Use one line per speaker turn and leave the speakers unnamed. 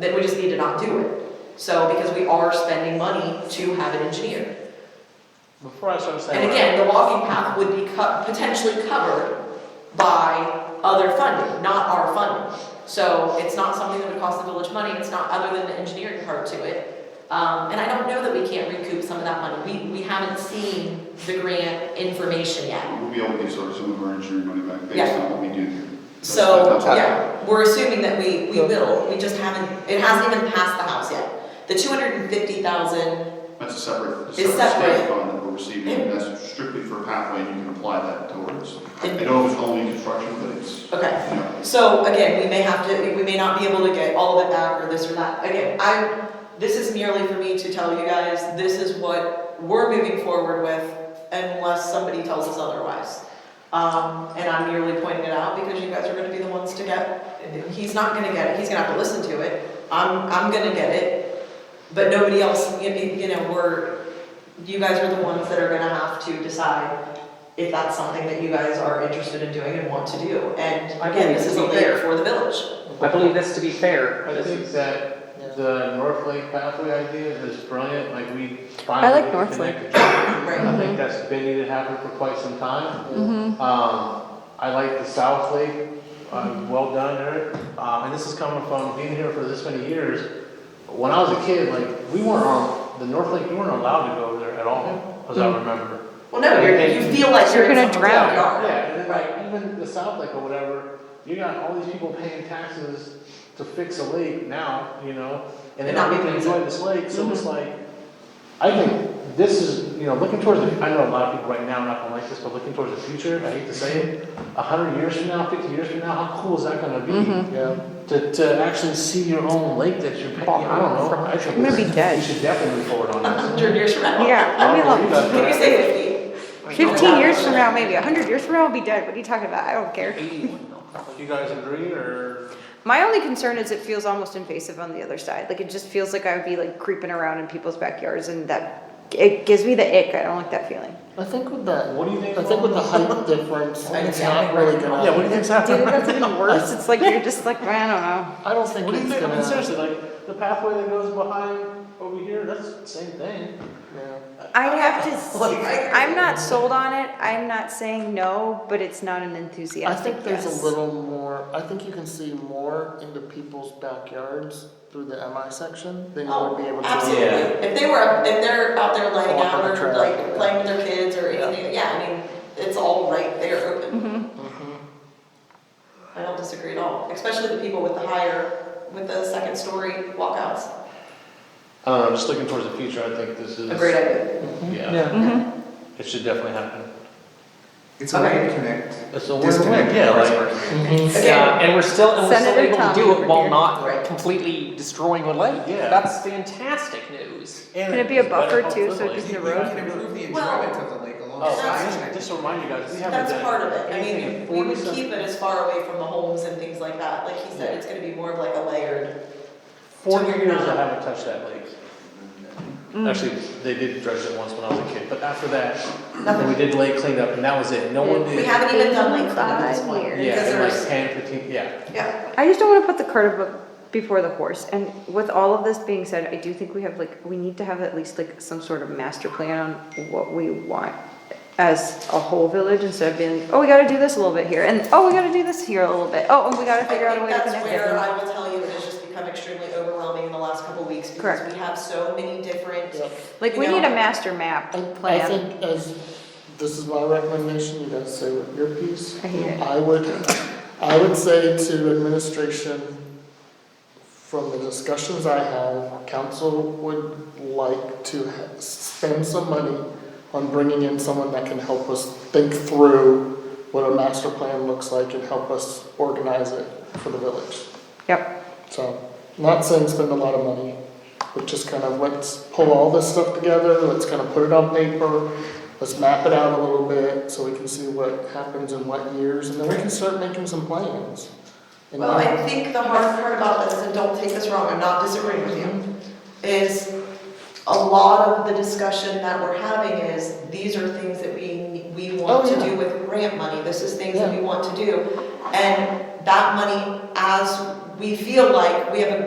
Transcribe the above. then we just need to not do it. So, because we are spending money to have it engineered.
Before I start saying.
And again, the walking path would be co- potentially covered by other funding, not our funding. So it's not something that would cost the village money, it's not other than the engineering part to it. Um, and I don't know that we can't recoup some of that money, we, we haven't seen the grant information yet.
We'll be able to use our, some of our engineering money back based
Yeah.
on what we do. here. That's-
So,
that's all.
yeah, we're assuming that we, we will, we just haven't, it hasn't even passed the house yet. The two hundred and fifty thousand,
That's a separate, a
It's
separate
separate.
state fund that we're receiving, and that's strictly for pathway, and you can apply that towards. I
And-
know it's only construction, but it's,
okay.
you know,
So again, we may have to, we may not be able to get all of it back or this or that. Again, I, this is merely for me to tell you guys, this is what we're moving forward with unless somebody tells us otherwise. Um, and I'm merely pointing it out because you guys are gonna be the ones to get, he's not gonna get it, he's gonna have to listen to it. I'm, I'm gonna get it, but nobody else, you know, you know, we're, you guys are the ones that are gonna have to decide if that's something that you guys are interested in doing and want to do. And again, this is a layer for the village.
I believe this to be fair.
I
This
think
is-
that the North Lake pathway idea is brilliant, like we
I like
finally
North Lake. Mm-hmm.
connected. I
Right.
think that's been needed to happen for quite some time. Um, I like the South Lake,
Mm-hmm.
um, well done, Eric. Uh, and this is coming from being here for this many years. When I was a kid, like, we weren't on, the North Lake, we weren't allowed to go over there at all, as
Mm-hmm.
I remember.
Well, no, you're, you feel like you're
You're
in
gonna
someone's
drown.
backyard.
Yeah, and then like even the South Lake or whatever, you got all these people paying taxes to fix a lake now, you know, and
And
they're
not
not even
making Mm-hmm.
enjoying this lake, so it's like, I think this is, you know, looking towards the, I know a lot of people right now are not gonna like this, but looking towards the future, I hate to say it, a hundred years from now, fifty years from now, how cool is that gonna be? Yeah. To, to actually see your own lake that you're paying, I don't know, I think
I'm gonna be
this-
dead.
we should definitely move forward on
A
this.
hundred years from now.
Yeah,
I'll
I mean,
believe
look,
that, but
Maybe
I-
say fifty.
fifteen years from now, maybe, a hundred years from now, I'll be dead, what are you talking about, I don't care.
You guys agree, or?
My only concern is it feels almost invasive on the other side, like, it just feels like I would be like creeping around in people's backyards and that, it gives me the ick, I don't like that feeling.
I think with that,
What do you think
I think with the
about-
height difference,
I
it's
think-
not really gonna.
Yeah, what do you think's
Dude,
happening?
that's even worse, it's like, you're just like, I don't know.
I don't think
What do you
it's
think? I mean,
gonna.
seriously, like the pathway that goes behind over here, that's the same thing.
yeah.
I'd have to, s- I'm not sold on it, I'm not saying no, but it's not an
I
enthusiastic
think there's
yes.
a little more, I think you can see more into people's backyards through the MI section than you would be
Oh,
able to.
absolutely. If they were, if they're out there laying
Walk
out
on the
or
trail.
like playing with their kids or anything, yeah, I mean, it's all right there open. Mm-hmm. I don't disagree at all, especially the people with the higher, with the second story walkouts.
I don't know, just looking towards the future, I think this is.
A great idea.
Yeah,
Mm-hmm.
it should definitely happen.
It's a way to connect,
It's a
disconnect.
win-win, yeah, like, uh,
Yeah, and we're still, and we're still
Senator
able to
Tommy
do
over
it while
here.
Right.
not completely destroying a lake.
Yeah.
That's fantastic news.
and
Can it be a
it's better
buffer too, so
hopefully.
it doesn't
You
erode?
can improve the
Well-
enjoyment of the lake
Oh,
alongside
just,
connecting.
just to remind you guys, we haven't
That's
done
part of it, I
anything in
mean, we would
40
keep it as far away from the homes and things like that, like he said, it's gonna be more of like a layered.
Forty
to
years
now.
I haven't touched that lake.
Mm.
Actually, they did dredge it once when I was a kid, but after that, we did lake cleanup and that was it, no one did.
We haven't even done like cleanup at this
Five
point,
years.
because
Yeah, in like
there's,
ten, fifteen, yeah.
yeah,
I just don't want to put the cart abo- before the horse. And with all of this being said, I do think we have like we need to have at least like some sort of master plan on what we want as a whole village instead of being like, oh, we got to do this a little bit here, and oh, we got to do this here a little bit. Oh, and we got to
I think
figure out a way to
that's
connect
where
it.
I will tell you, it has just become extremely overwhelming in the last couple of weeks, because
Correct.
we have so many different,
Yep.
Like we
you
need
know-
a master map
I-
plan.
I think as, this is my recommendation, you guys say what your piece.
I hate it.
I would, I would say to administration, from the discussions I have, council would like to ha- spend some money on bringing in someone that can help us think through what a master plan looks like and help us organize it for the village.
yep.
So, not saying spend a lot of money, but just kind of let's pull all this stuff together, let's kind of put it on paper, let's map it out a little bit so we can see what happens in what years, and then we can start making some plans. And
Well,
then-
I think the hard part about this, and don't take this wrong, I'm not disagreeing with you, is a lot of the discussion that we're having is, these are things that we, we want
Oh,
to
yeah.
do with grant money, this is things that
Yeah.
we want to do. And that money, as we feel like we have a